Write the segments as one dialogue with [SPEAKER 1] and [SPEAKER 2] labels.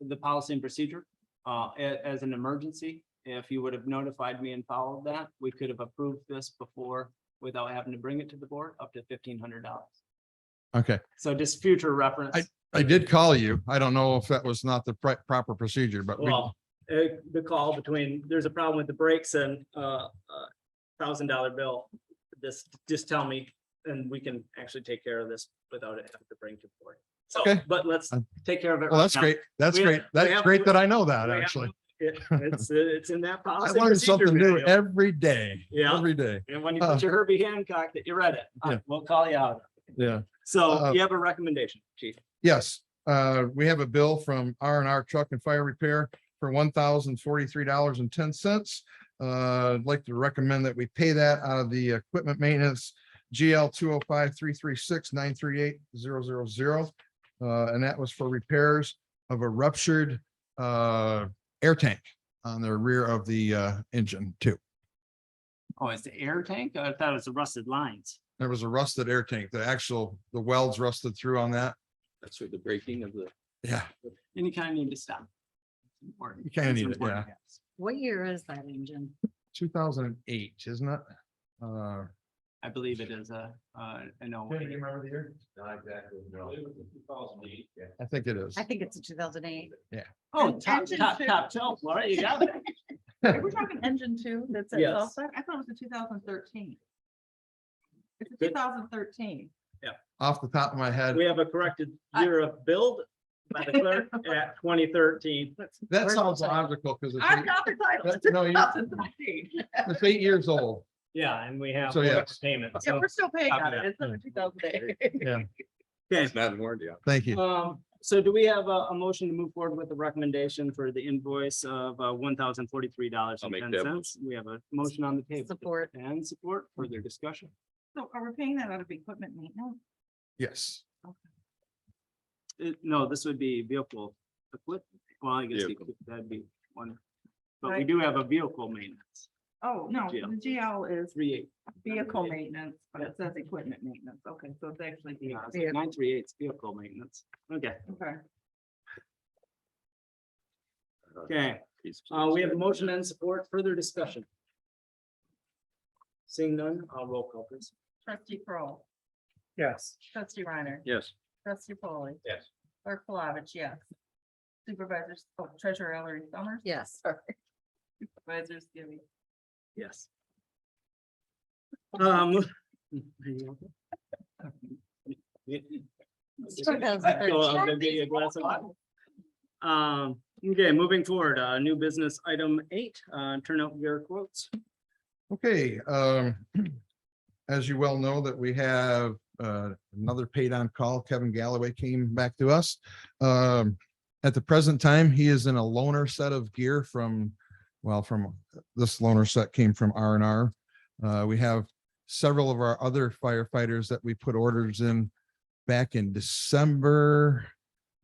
[SPEAKER 1] the policy and procedure, uh, a- as an emergency. If you would have notified me and followed that, we could have approved this before without having to bring it to the board up to fifteen hundred dollars.
[SPEAKER 2] Okay,
[SPEAKER 1] So just future reference,
[SPEAKER 2] I did call you. I don't know if that was not the pri- proper procedure, but we,
[SPEAKER 1] well, uh, the call between, there's a problem with the brakes and, uh, thousand dollar bill. This, just tell me, and we can actually take care of this without it having to bring to the board. So,
[SPEAKER 2] Okay.
[SPEAKER 1] but let's
[SPEAKER 2] Um,
[SPEAKER 1] take care of it.
[SPEAKER 2] well,
[SPEAKER 1] right
[SPEAKER 2] that's
[SPEAKER 1] now.
[SPEAKER 2] great. That's
[SPEAKER 1] We-
[SPEAKER 2] great.
[SPEAKER 1] we
[SPEAKER 2] That's
[SPEAKER 1] have-
[SPEAKER 2] great that I know that,
[SPEAKER 1] we have-
[SPEAKER 2] actually.
[SPEAKER 1] It- It's, it's in that
[SPEAKER 2] I
[SPEAKER 1] policy.
[SPEAKER 2] learned
[SPEAKER 1] procedure
[SPEAKER 2] something new
[SPEAKER 1] manual.
[SPEAKER 2] every day.
[SPEAKER 1] Yeah.
[SPEAKER 2] Every day.
[SPEAKER 1] And when you
[SPEAKER 2] Uh,
[SPEAKER 1] put your Herbie Hancock that you read it, I-
[SPEAKER 2] Yeah.
[SPEAKER 1] we'll call you out.
[SPEAKER 2] Yeah.
[SPEAKER 1] So
[SPEAKER 2] Uh,
[SPEAKER 1] you have a recommendation, chief.
[SPEAKER 2] Yes, uh, we have a bill from R and R Truck and Fire Repair for one thousand forty-three dollars and ten cents. Uh, I'd like to recommend that we pay that out of the equipment maintenance GL two oh five three three six nine three eight zero zero zero. Uh, and that was for repairs of a ruptured, uh, air tank on the rear of the, uh, engine too.
[SPEAKER 1] Oh, it's the air tank? I thought it was the rusted lines.
[SPEAKER 2] There was a rusted air tank, the actual, the welds rusted through on that.
[SPEAKER 3] That's for the breaking of the.
[SPEAKER 2] Yeah,
[SPEAKER 1] And you kind of need to stop. It's important.
[SPEAKER 2] You kinda
[SPEAKER 1] It's
[SPEAKER 2] need it,
[SPEAKER 1] important, yes.
[SPEAKER 4] What year is that engine?
[SPEAKER 2] two thousand and eight, isn't it? Uh,
[SPEAKER 1] I believe it is a, uh, an old.
[SPEAKER 2] remember the year?
[SPEAKER 3] Not exactly, no. Two thousand eight. Yeah.
[SPEAKER 2] I think it is.
[SPEAKER 4] I think it's a two thousand eight.
[SPEAKER 1] Oh,
[SPEAKER 4] An
[SPEAKER 1] top,
[SPEAKER 4] engine
[SPEAKER 1] top,
[SPEAKER 4] too.
[SPEAKER 1] top shelf, Laura, you got it.
[SPEAKER 4] We're talking engine two that's
[SPEAKER 1] at Yes. Tulsa?
[SPEAKER 4] I thought it was a two thousand thirteen. It's
[SPEAKER 1] Good.
[SPEAKER 4] thousand thirteen.
[SPEAKER 2] Off the top of my head,
[SPEAKER 1] We have a corrected year of build by the clerk at twenty thirteen.
[SPEAKER 2] that sounds logical because it's, eight-
[SPEAKER 4] got the title.
[SPEAKER 2] that- no, you-
[SPEAKER 4] thirteen.
[SPEAKER 2] it's eight years old.
[SPEAKER 1] Yeah, and we have
[SPEAKER 2] So,
[SPEAKER 1] more
[SPEAKER 2] yes.
[SPEAKER 1] payment.
[SPEAKER 4] Yeah,
[SPEAKER 1] So,
[SPEAKER 4] we're still paying
[SPEAKER 1] Copy
[SPEAKER 4] on
[SPEAKER 1] that.
[SPEAKER 4] it. It's under two thousand eight.
[SPEAKER 1] okay.
[SPEAKER 3] It's not in warranty.
[SPEAKER 2] Thank you.
[SPEAKER 1] Um, so do we have a, a motion to move forward with the recommendation for the invoice of, uh, one thousand forty-three dollars
[SPEAKER 3] I'll
[SPEAKER 1] and
[SPEAKER 3] make
[SPEAKER 1] ten
[SPEAKER 3] that
[SPEAKER 1] cents? We have a motion on the table.
[SPEAKER 4] Support.
[SPEAKER 1] And support, further
[SPEAKER 3] Mhm.
[SPEAKER 1] discussion.
[SPEAKER 4] So are we paying that out of equipment maintenance?
[SPEAKER 2] Yes.
[SPEAKER 1] Uh, no, this would be vehicle equipment. Well, I guess
[SPEAKER 3] Vehicle.
[SPEAKER 1] that'd be one. But we do have a vehicle maintenance,
[SPEAKER 5] Oh, no,
[SPEAKER 1] GL.
[SPEAKER 5] the GL is
[SPEAKER 1] three eight,
[SPEAKER 5] vehicle maintenance, but it says equipment maintenance. Okay, so it's actually. the-
[SPEAKER 1] yeah, nine three eight's vehicle maintenance. Okay,
[SPEAKER 5] Okay.
[SPEAKER 1] okay. Uh, we have a motion and support, further discussion. Seeing none, I'll roll call please.
[SPEAKER 5] Trustee Kroll,
[SPEAKER 1] Yes.
[SPEAKER 5] trustee Reiner,
[SPEAKER 3] Yes.
[SPEAKER 5] trustee Polly,
[SPEAKER 3] Yes.
[SPEAKER 5] clerk Flavich, yes. Supervisor, oh, treasurer Ellery Summers.
[SPEAKER 4] Yes.
[SPEAKER 5] Supervisor Skibby.
[SPEAKER 1] Yes. Um. I'll give you a glass of water. Um, okay, moving forward, uh, new business item eight, uh, turn out your quotes.
[SPEAKER 2] Okay, um, as you well know that we have, uh, another paid on call. Kevin Galloway came back to us. Um, at the present time, he is in a loaner set of gear from, well, from, this loaner set came from R and R. Uh, we have several of our other firefighters that we put orders in back in December.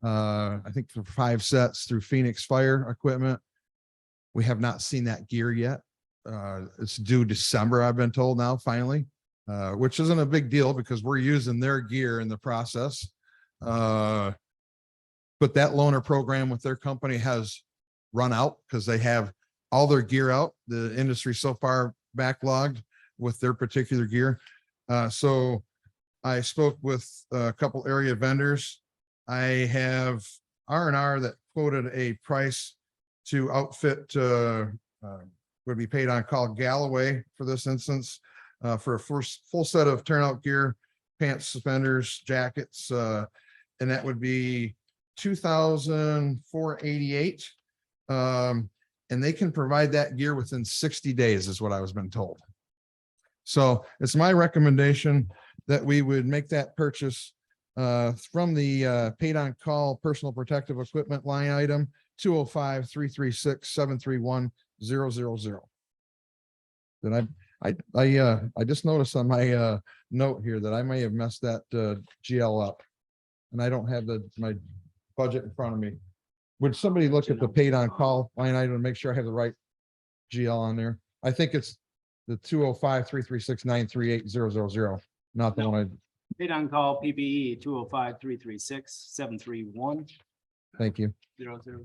[SPEAKER 2] Uh, I think for five sets through Phoenix Fire Equipment. We have not seen that gear yet uh, it's due December, I've been told now finally, uh, which isn't a big deal because we're using their gear in the process. Uh, but that loaner program with their company has run out because they have all their gear out. The industry so far backlogged with their particular gear. Uh, so I spoke with a couple area vendors. I have R and R that quoted a price to outfit, uh, uh, would be paid on call Galloway for this instance, uh, for a first full set of turnout gear, pants, suspenders, jackets, uh, and that would be two thousand four eighty-eight. Um, and they can provide that gear within sixty days is what I was been told. So it's my recommendation that we would make that purchase uh, from the, uh, paid on call personal protective equipment line item, two oh five, three, three, six, seven, three, one, zero zero zero. Then I, I, I, uh, I just noticed on my, uh, note here that I may have messed that, uh, GL up. And I don't have the, my budget in front of me. Would somebody look at the paid on call line item and make sure I have the right GL on there? I think it's the two oh five, three, three, six, nine, three, eight, zero, zero, zero, not the one
[SPEAKER 1] Paid on E call PPE two oh five, three, three, six, seven, three, one,
[SPEAKER 2] I, thank you.
[SPEAKER 1] zero, zero.